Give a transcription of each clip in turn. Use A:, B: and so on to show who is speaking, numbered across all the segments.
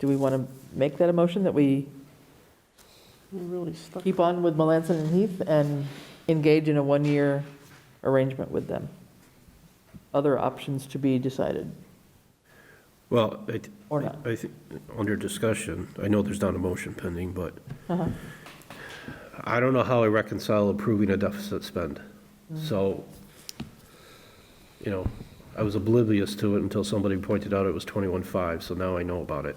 A: Do we want to make that a motion that we
B: We're really stuck.
A: keep on with Melanson and Heath and engage in a one-year arrangement with them? Other options to be decided
C: Well, I, th-
A: or not?
C: I think, under discussion, I know there's not a motion pending, but
A: Uh-huh.
C: I don't know how I reconcile approving a deficit spend.
A: Mm.
C: So, you know, I was oblivious to it until somebody pointed out it was 21.5, so now I know about it.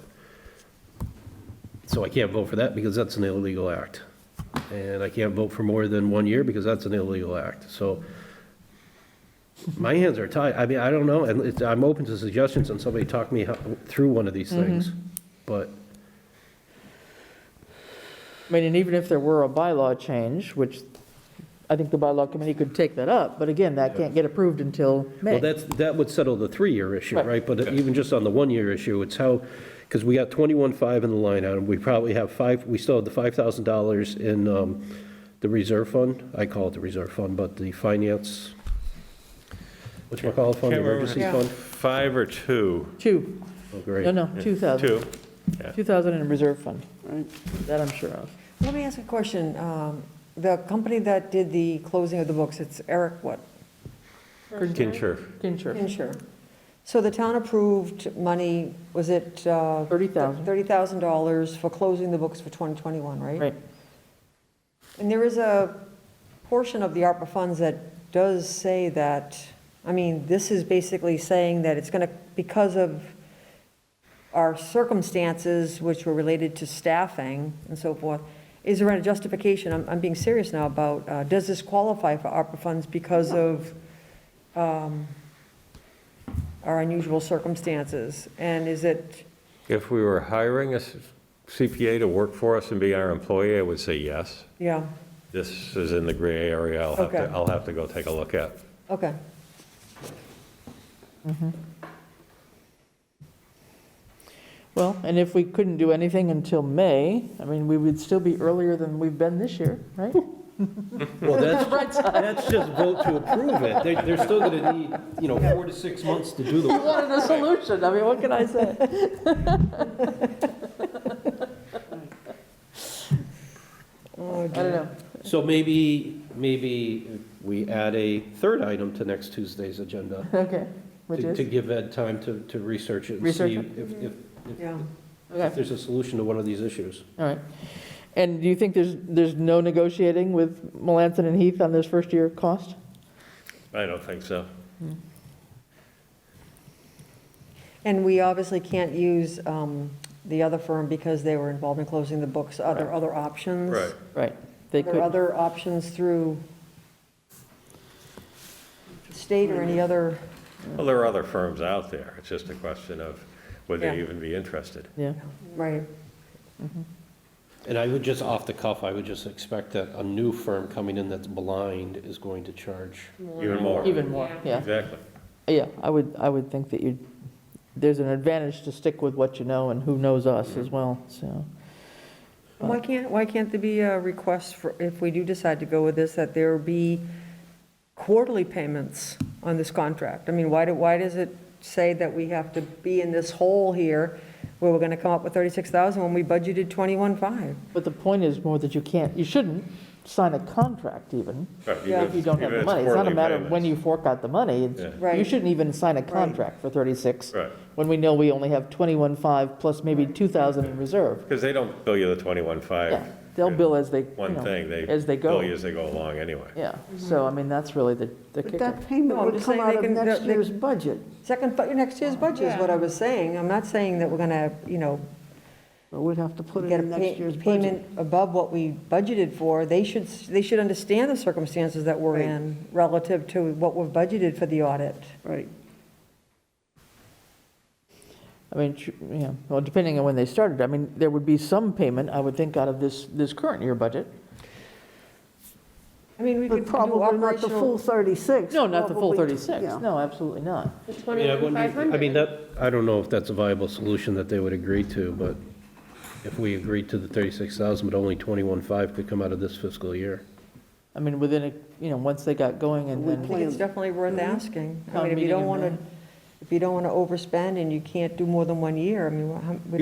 C: So I can't vote for that because that's an illegal act. And I can't vote for more than one year because that's an illegal act. So my hands are tied. I mean, I don't know, and it's, I'm open to suggestions and somebody talk me ho- through one of these
A: Mm-hmm.
C: things. But
A: I mean, and even if there were a bylaw change, which I think the bylaw committee could take that up, but again, that can't get approved until
C: Well,
A: May.
C: that's, that would settle the three-year issue,
A: Right.
C: right? But even just on the one-year issue, it's how, because we got 21.5 in the line item, we probably have five, we still have the $5,000 in um, the reserve fund, I call it the reserve fund, but the finance, which we call fund,
D: Can't remember.
C: emergency
B: Yeah.
C: fund?
D: Five or two?
A: Two,
C: Oh,
A: no,
C: great.
A: no, 2,000.
D: Two.
A: 2,000 in reserve fund,
B: Right.
A: that I'm sure of.
E: Let me ask a question. Um, The company that did the closing of the books, it's Eric what?
D: Kincher.
A: Kincher,
E: Insure. So the town approved money, was it? uh,
A: 30,000.
E: $30,000 for closing the books for 2021, right?
A: right.
E: And there is a portion of the ARPA funds that does say that, I mean, this is basically saying that it's going to, because of our circumstances, which were related to staffing and so forth, is there a justification, I'm, I'm being serious now about, uh, does this qualify for ARPA funds because of um, our unusual circumstances? And is it,
D: If we were hiring a CPA to work for us and be our employee, I would say yes.
E: yeah,
D: This is in the gray area. I'll have
E: Okay.
D: to, I'll have to go take a look at.
E: okay.
A: Well, and if we couldn't do anything until May, I mean, we would still be earlier than we've been this year, right?
C: Well, that's, that's just vote to approve it. They- They're still going to need, you know, four to six months to do the
A: You wanted a solution, I mean, what can I say?
E: Oh,
A: I don't know.
C: So maybe, maybe we add a third item to next Tuesday's agenda.
A: Okay, which
C: to- To
A: is,
C: give Ed time to, to research it and
A: Research
C: see
A: it. Mm-hmm.
C: if, if,
E: Yeah.
C: if
A: okay,
C: there's a solution to one of these issues.
A: all right. And do you think there's, there's no negotiating with Melanson and Heath on this first year cost?
D: I don't think so.
E: And we obviously can't use um, the other firm because they were involved in closing the books. Are there other options?
A: Right, they
E: Are there
A: could,
E: other options through state or any other?
D: Well, there are other firms out there. It's just a question of would they
E: Yeah.
D: even be interested.
A: yeah,
E: Right.
C: And I would just, off the cuff, I would just expect that a new firm coming in that's blind is going to charge.
D: Even more.
A: even more, yeah.
D: Exactly.
A: Yeah, I would, I would think that you, there's an advantage to stick with what you know and who knows us as well, so.
E: Why can't, why can't there be a request for, if we do decide to go with this, that there be quarterly payments on this contract? I mean, why do, why does it say that we have to be in this hole here where we're going to come up with 36,000 when we budgeted 21.5?
A: But the point is more that you can't, you shouldn't sign a contract even,
D: Right,
E: Yeah.
D: even
A: if you don't have
D: even
A: the
D: it's
A: money. It's not a
D: quarterly
A: matter of when you
D: payments.
A: fork out the money. It's-
D: Yeah.
E: Right.
A: You shouldn't even sign a contract for 36,
D: Right,
A: when we know we only have 21.5 plus maybe 2,000 in reserve.
D: because they don't bill you the 21.5.
A: Yeah, they'll bill as they, you
D: One
A: know,
D: thing, they
A: as they
D: bill you
A: go.
D: as they go along anyway.
A: Yeah, so I mean, that's really the the
B: Mm-hmm.
A: kicker.
B: But that
E: No, I'm
B: payment would
E: just
B: come
E: saying they
B: out of
E: can-
B: next
E: they-
B: year's budget.
E: Second, but next year's budget is what I was saying. I'm not saying that we're going to, you know,
B: So we'd have to put it
E: get a
B: in next year's
E: pay-
B: budget.
E: payment above what we budgeted for. They should, s- they should understand the circumstances that we're
B: Right.
E: in relative to what we've budgeted for the audit.
B: Right.
A: I mean, tr- yeah, well, depending on when they started, I mean, there would be some payment, I would think, out of this, this current year budget.
E: I mean, we could
B: But
E: do
B: probably not the full
E: operational.
B: 36.
A: No, not the full
B: probably-
A: 36,
B: yeah.
A: no, absolutely not.
F: The
C: I mean, I wouldn't-
F: 21,500.
C: I mean, that, I don't know if that's a viable solution that they would agree to, but if we agreed to the 36,000, but only 21.5 could come out of this fiscal year.
A: I mean, within, a you know, once they got going and
B: We
A: then.
E: I think it's definitely worth asking. I
A: Town
E: mean, if
A: meeting
E: you don't
A: in
E: want to,
A: May.
E: if you don't want to overspend and you can't do more than one year, I mean, wha- how-